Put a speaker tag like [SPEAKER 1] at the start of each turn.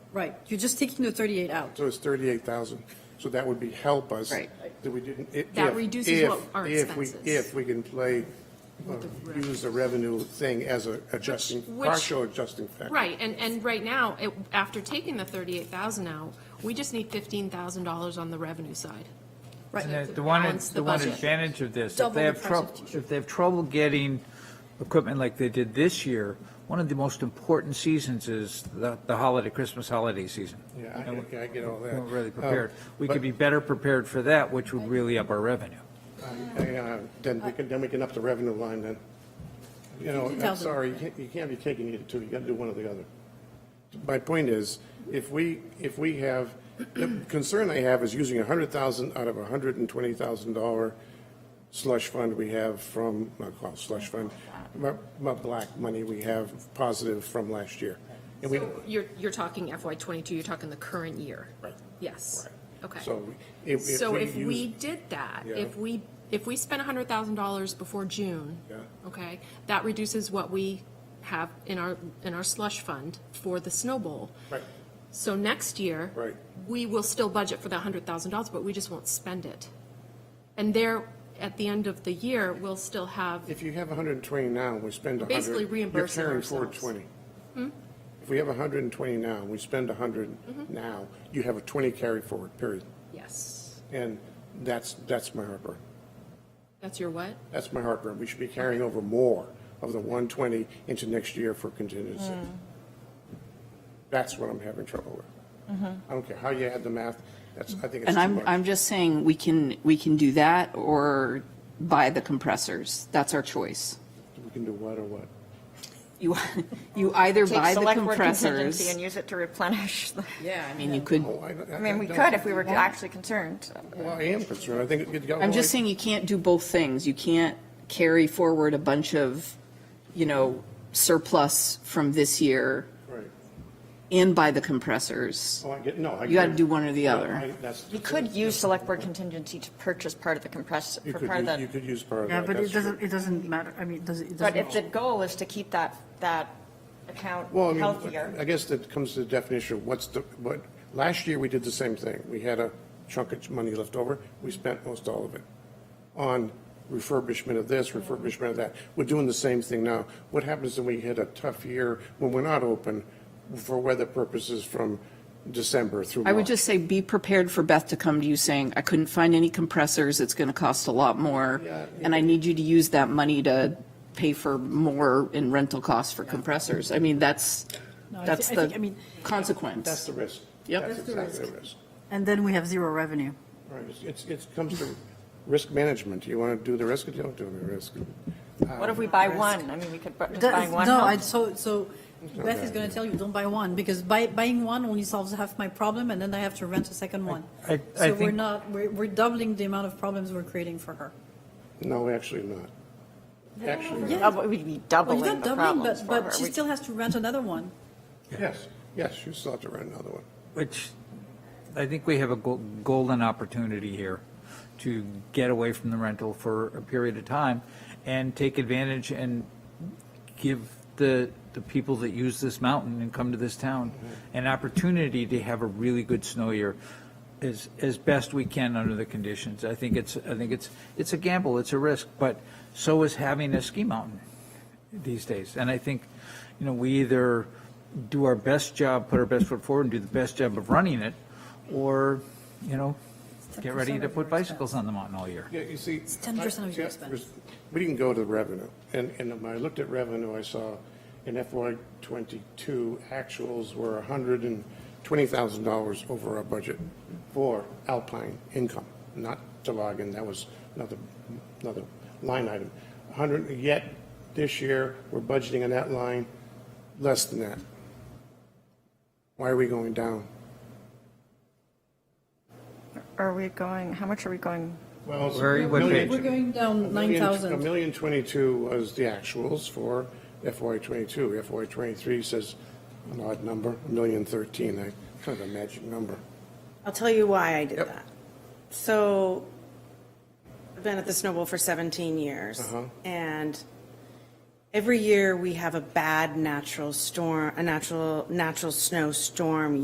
[SPEAKER 1] Right, you're just taking the 38 out.
[SPEAKER 2] So it's 38,000. So that would be help us.
[SPEAKER 3] Right.
[SPEAKER 2] That we didn't. i-
[SPEAKER 3] That
[SPEAKER 2] if-
[SPEAKER 3] reduces
[SPEAKER 2] if-
[SPEAKER 3] what our
[SPEAKER 2] if we-
[SPEAKER 3] expenses.
[SPEAKER 2] If we can play, uh, use the revenue thing as a adjusting,
[SPEAKER 3] which-
[SPEAKER 2] partial adjusting factor.
[SPEAKER 3] Right, and, and right now, it- after taking the 38,000 out, we just need $15,000 on the revenue side.
[SPEAKER 4] And
[SPEAKER 1] Right,
[SPEAKER 4] the- the one,
[SPEAKER 3] balance the
[SPEAKER 4] the one
[SPEAKER 3] budget.
[SPEAKER 4] advantage of this, if
[SPEAKER 1] Double
[SPEAKER 4] they
[SPEAKER 1] the
[SPEAKER 4] have trouble,
[SPEAKER 1] percentage.
[SPEAKER 4] if they have trouble getting equipment like they did this year, one of the most important seasons is the, the holiday, Christmas holiday season.
[SPEAKER 2] Yeah, I-
[SPEAKER 4] And
[SPEAKER 2] I get all
[SPEAKER 4] We're
[SPEAKER 2] that.
[SPEAKER 4] not really
[SPEAKER 2] Um,
[SPEAKER 4] prepared. We
[SPEAKER 2] but-
[SPEAKER 4] could be better prepared for that, which would really up our revenue.
[SPEAKER 2] Yeah, uh, Then we can, then we can up the revenue line then. You know, I'm
[SPEAKER 1] 50,000.
[SPEAKER 2] sorry, you can't- you can't be taking either two, you got to do one or the other. My point is, if we, if we have, the concern I have is using 100,000 out of a $120,000 slush fund we have from, not called slush fund, my, my black money we have positive from last year. And we,
[SPEAKER 3] So You're, you're talking FY '22, you're talking the current year.
[SPEAKER 2] Right.
[SPEAKER 3] Yes, okay.
[SPEAKER 2] so if, if
[SPEAKER 3] So
[SPEAKER 2] we
[SPEAKER 3] if
[SPEAKER 2] use-
[SPEAKER 3] we did that,
[SPEAKER 2] Yeah.
[SPEAKER 3] if we, if we spent hundred thousand dollars before June,
[SPEAKER 2] Yeah.
[SPEAKER 3] okay, that reduces what we have in our, in our slush fund for the snow bowl.
[SPEAKER 2] Right.
[SPEAKER 3] So next year.
[SPEAKER 2] Right.
[SPEAKER 3] We will still budget for that hundred thousand dollars, but we just won't spend it. And there, at the end of the year, we'll still have,
[SPEAKER 2] If you have 120 now, we spend 100.
[SPEAKER 3] Basically reimbursing
[SPEAKER 2] You're carrying
[SPEAKER 3] ourselves.
[SPEAKER 2] forward 20.
[SPEAKER 5] Hmm?
[SPEAKER 2] If we have 120 now, we spend 100
[SPEAKER 5] Mm-hmm.
[SPEAKER 2] now, you have a 20 carry forward, period.
[SPEAKER 3] yes,
[SPEAKER 2] And that's, that's my heartburn.
[SPEAKER 3] that's your what?
[SPEAKER 2] That's my heartburn. We should be carrying over more of the 120 into next year for contingency.
[SPEAKER 5] Mm.
[SPEAKER 2] That's what I'm having trouble with.
[SPEAKER 5] Mm-hmm.
[SPEAKER 2] I don't care how you add the math, that's, I think it's
[SPEAKER 6] And
[SPEAKER 2] too
[SPEAKER 6] I'm, I'm
[SPEAKER 2] much.
[SPEAKER 6] just saying, we can, we can do that or buy the compressors. That's our choice.
[SPEAKER 2] We can do what or what?
[SPEAKER 6] You, you either
[SPEAKER 5] Take
[SPEAKER 6] buy the
[SPEAKER 5] select word contingency
[SPEAKER 6] compressors.
[SPEAKER 5] And use it to replenish. the-
[SPEAKER 6] Yeah, I mean, you could,
[SPEAKER 2] Oh, I
[SPEAKER 5] I mean, we
[SPEAKER 2] don't-
[SPEAKER 5] could if we were actually concerned.
[SPEAKER 2] Well, I am concerned. I think it got.
[SPEAKER 6] I'm just saying you can't do both things. You can't carry forward a bunch of, you know, surplus from this year
[SPEAKER 2] Right.
[SPEAKER 6] and buy the compressors.
[SPEAKER 2] Oh, I get, no, I.
[SPEAKER 6] You gotta do one or the
[SPEAKER 2] No,
[SPEAKER 6] other.
[SPEAKER 2] I- that's-
[SPEAKER 5] You could use select word contingency to purchase part of the compressor,
[SPEAKER 2] You
[SPEAKER 5] for
[SPEAKER 2] could,
[SPEAKER 5] part of
[SPEAKER 2] use- you
[SPEAKER 5] the,
[SPEAKER 2] could use part of that.
[SPEAKER 1] yeah, but
[SPEAKER 2] that's
[SPEAKER 1] it
[SPEAKER 2] true.
[SPEAKER 1] doesn't, it doesn't matter, I mean, it doesn't, it
[SPEAKER 5] but if the
[SPEAKER 1] doesn't.
[SPEAKER 5] goal is to keep that, that account
[SPEAKER 2] Well, I
[SPEAKER 5] healthier.
[SPEAKER 2] mean, I guess that comes to the definition of what's the, what, last year we did the same thing. We had a chunk of money left over. We spent most all of it on refurbishment of this, refurbishment of that. We're doing the same thing now. What happens when we hit a tough year when we're not open for weather purposes from December through
[SPEAKER 6] I would
[SPEAKER 2] March?
[SPEAKER 6] just say, be prepared for Beth to come to you saying, I couldn't find any compressors, it's going to cost a lot more,
[SPEAKER 2] Yeah.
[SPEAKER 6] and I need you to use that money to pay for more in rental costs for compressors. I mean, that's,
[SPEAKER 1] I
[SPEAKER 6] that's
[SPEAKER 1] thi- I think- I
[SPEAKER 6] the
[SPEAKER 1] mean-
[SPEAKER 2] That's
[SPEAKER 6] consequence.
[SPEAKER 2] the risk.
[SPEAKER 6] Yep.
[SPEAKER 2] That's
[SPEAKER 6] That's the
[SPEAKER 2] exactly the risk.
[SPEAKER 1] And then we have zero revenue.
[SPEAKER 2] Right, it's- it's, it comes to risk management. You want to do the risk or you don't do the risk? Uh,
[SPEAKER 5] What if we buy one? I mean, we could bu- just
[SPEAKER 1] That
[SPEAKER 5] buy
[SPEAKER 1] is-
[SPEAKER 5] one.
[SPEAKER 1] No,
[SPEAKER 5] help.
[SPEAKER 1] I, so, so Beth is
[SPEAKER 2] bad,
[SPEAKER 1] going to tell you, don't buy one, because buy, buying one only solves half my problem, and then I have to rent a second one.
[SPEAKER 4] I- I
[SPEAKER 1] So we're
[SPEAKER 4] think-
[SPEAKER 1] not, we're, we're doubling the amount of problems we're creating for her.
[SPEAKER 2] No, actually not. Actually,
[SPEAKER 5] Uh, but We'd be
[SPEAKER 1] Well, you're
[SPEAKER 5] doubling
[SPEAKER 1] not
[SPEAKER 5] the
[SPEAKER 1] doubling,
[SPEAKER 5] problems
[SPEAKER 1] but,
[SPEAKER 5] for her.
[SPEAKER 1] but she
[SPEAKER 5] We-
[SPEAKER 1] still has to rent another one.
[SPEAKER 2] yes, yes, you still have to run another one.
[SPEAKER 4] Which, I think we have a gol- golden opportunity here to get away from the rental for a period of time and take advantage and give the, the people that use this mountain and come to this town an opportunity to have a really good snow year as, as best we can under the conditions. I think it's, I think it's, it's a gamble, it's a risk, but so is having a ski mountain these days. And I think, you know, we either do our best job, put our best foot forward and do the best job of running it, or, you know, get ready
[SPEAKER 1] 10%
[SPEAKER 4] to
[SPEAKER 1] of
[SPEAKER 4] put
[SPEAKER 1] your
[SPEAKER 4] bicycles on the mountain all year.
[SPEAKER 2] Yeah, you see. It's
[SPEAKER 1] 10% of your expense.
[SPEAKER 2] We didn't go to the revenue, and, and when I looked at revenue, I saw in FY twenty-two, actuals were hundred and twenty thousand dollars over our budget for Alpine income, not Toboggan, that was another, another line item. hundred, yet this year, we're budgeting on that line less than that. Why are we going down?
[SPEAKER 5] Are we going, how much are we going?
[SPEAKER 2] Well, it's a
[SPEAKER 4] Where are you- what
[SPEAKER 2] million-
[SPEAKER 4] page?
[SPEAKER 1] We're going down nine
[SPEAKER 2] A
[SPEAKER 1] thousand.
[SPEAKER 2] million twenty-two was the actuals for FY twenty-two. FY twenty-three says an odd number, a million thirteen, I, kind of a magic number.
[SPEAKER 7] I'll tell you why I did
[SPEAKER 2] Yep.
[SPEAKER 7] that. So, I've been at the Snowball for 17 years, and every year we have a bad natural storm, a natural, natural snowstorm